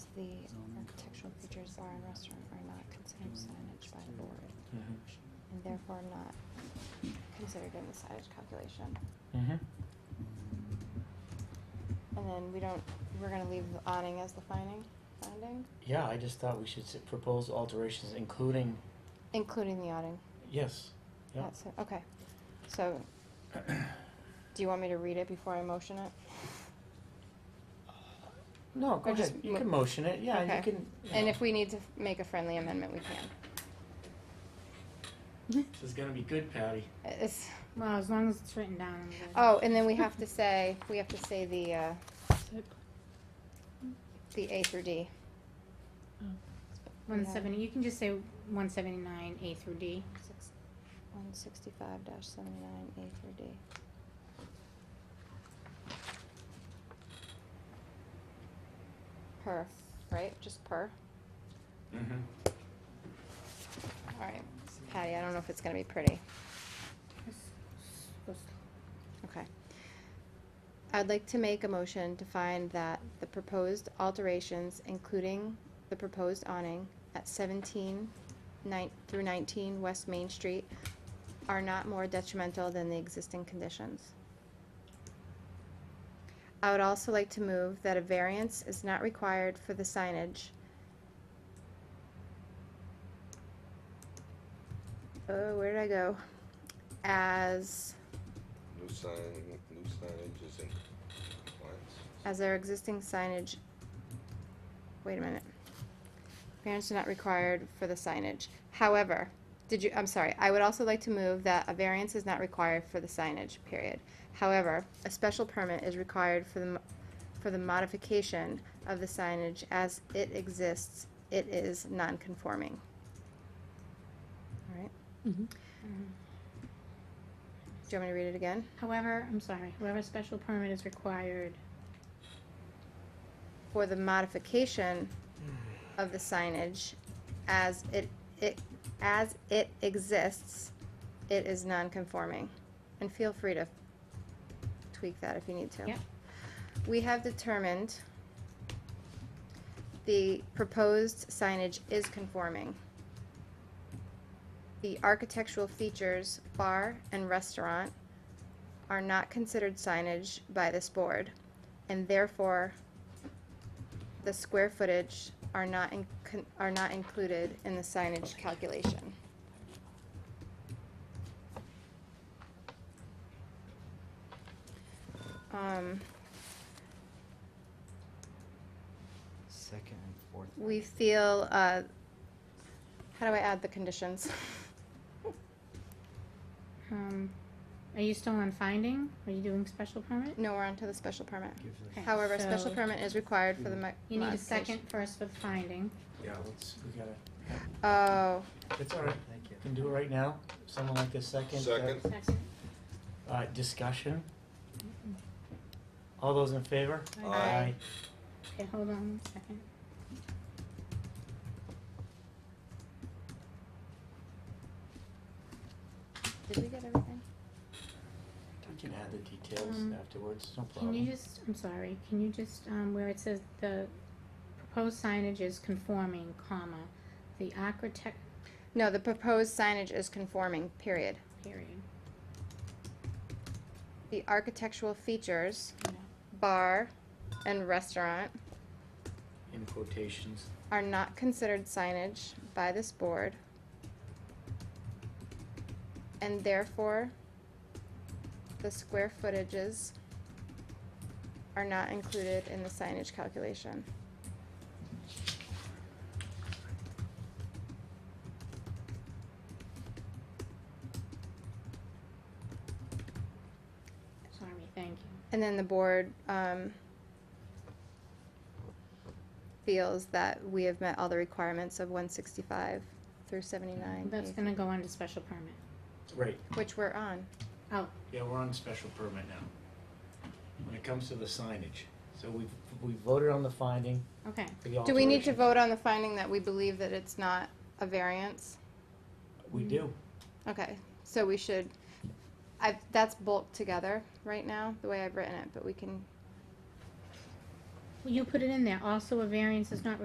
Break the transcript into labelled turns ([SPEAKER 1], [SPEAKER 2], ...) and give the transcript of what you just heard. [SPEAKER 1] the architectural features are in restaurant are not considered signage by the board, and therefore not considered in the signage calculation.
[SPEAKER 2] Mm-hmm.
[SPEAKER 1] And then we don't, we're gonna leave the awning as the finding, finding,
[SPEAKER 2] Yeah, I just thought we should s- propose alterations, including
[SPEAKER 1] including the awning.
[SPEAKER 2] yes. Yep.
[SPEAKER 1] That's it, okay. So, do you want me to read it before I motion it?
[SPEAKER 2] No, go
[SPEAKER 1] Or just
[SPEAKER 2] ahead. You
[SPEAKER 1] mo-
[SPEAKER 2] can motion it. Yeah,
[SPEAKER 1] Okay.
[SPEAKER 2] you can.
[SPEAKER 1] And if we need to f- make a friendly amendment, we can.
[SPEAKER 2] this is gonna be good, Patty.
[SPEAKER 1] It's,
[SPEAKER 3] Well, as long as it's written down. I'm good.
[SPEAKER 1] oh, and then we have to say, we have to say the, uh, the A through D.
[SPEAKER 3] Oh. One seventy, you can just say one seventy-nine, A through D.
[SPEAKER 1] Six- One sixty-five dash seventy-nine, A through D. Per, right, just per,
[SPEAKER 2] Mm-hmm.
[SPEAKER 1] alright, Patty, I don't know if it's gonna be pretty, Mm-hmm. okay. I'd like to make a motion to find that the proposed alterations, including the proposed awning at seventeen nine, through nineteen West Main Street, are not more detrimental than the existing conditions. I would also like to move that a variance is not required for the signage. Oh, where did I go? As,
[SPEAKER 4] New sign, new signage is in compliance.
[SPEAKER 1] as our existing signage, wait a minute. Variance is not required for the signage. However, did you, I'm sorry, I would also like to move that a variance is not required for the signage, period. However, a special permit is required for the, mo- for the modification of the signage as it exists, it is non-conforming. All right, do you want me to read it again?
[SPEAKER 3] However, I'm sorry, whoever special permit is required,
[SPEAKER 1] for the modification of the signage as it, it, as it exists, it is non-conforming. And feel free to tweak that if you need to.
[SPEAKER 3] Yep.
[SPEAKER 1] We have determined the proposed signage is conforming. The architectural features, bar and restaurant, are not considered signage by this board, and therefore the square footage are not in, con- are not included in the signage calculation. Um,
[SPEAKER 5] Second and fourth.
[SPEAKER 1] we feel, uh, how do I add the conditions?
[SPEAKER 3] um, are you still on finding? Are you doing special permit?
[SPEAKER 1] No, we're onto the special permit.
[SPEAKER 5] Give Hmm. the-
[SPEAKER 3] Okay.
[SPEAKER 1] Mm-hmm. However, a special
[SPEAKER 3] So-
[SPEAKER 1] permit is required for the mo-
[SPEAKER 3] You need a
[SPEAKER 1] modification.
[SPEAKER 3] second first for the finding.
[SPEAKER 2] Yeah, let's. We gotta.
[SPEAKER 1] Oh,
[SPEAKER 2] It's all right.
[SPEAKER 5] Thank you.
[SPEAKER 2] You can do it right now. Someone like a second. uh,
[SPEAKER 4] Second.
[SPEAKER 3] Second.
[SPEAKER 2] Uh, discussion. All those in favor?
[SPEAKER 3] Aye.
[SPEAKER 1] Aye.
[SPEAKER 3] Okay, hold on one second.
[SPEAKER 1] did we get everything?
[SPEAKER 2] You can add the details
[SPEAKER 1] Mm-hmm.
[SPEAKER 3] Um,
[SPEAKER 2] afterwards. No problem.
[SPEAKER 3] Can you just, I'm sorry, can you just, um, where it says the proposed signage is conforming, comma, the architect,
[SPEAKER 1] No, the proposed signage is conforming, period.
[SPEAKER 3] period,
[SPEAKER 1] The architectural features,
[SPEAKER 3] you know.
[SPEAKER 1] bar and restaurant,
[SPEAKER 2] In quotations.
[SPEAKER 1] are not considered signage by this board and therefore the square footages are not included in the signage calculation.
[SPEAKER 3] Sorry, thank you.
[SPEAKER 1] And then the board, um, feels that we have met all the requirements of one sixty-five through seventy-nine,
[SPEAKER 3] That's gonna go under special permit.
[SPEAKER 2] Right.
[SPEAKER 1] which we're on.
[SPEAKER 3] Oh,
[SPEAKER 2] Yeah, we're on special permit now. When it comes to the signage, so we've, we voted on the finding,
[SPEAKER 3] okay.
[SPEAKER 2] the alteration.
[SPEAKER 1] Do we need to vote on the finding that we believe that it's not a variance?
[SPEAKER 2] We do.
[SPEAKER 1] Okay, so we should, I, that's bulked together right now, the way I've written it, but we can
[SPEAKER 3] Well, You put it in there. Also, a variance is not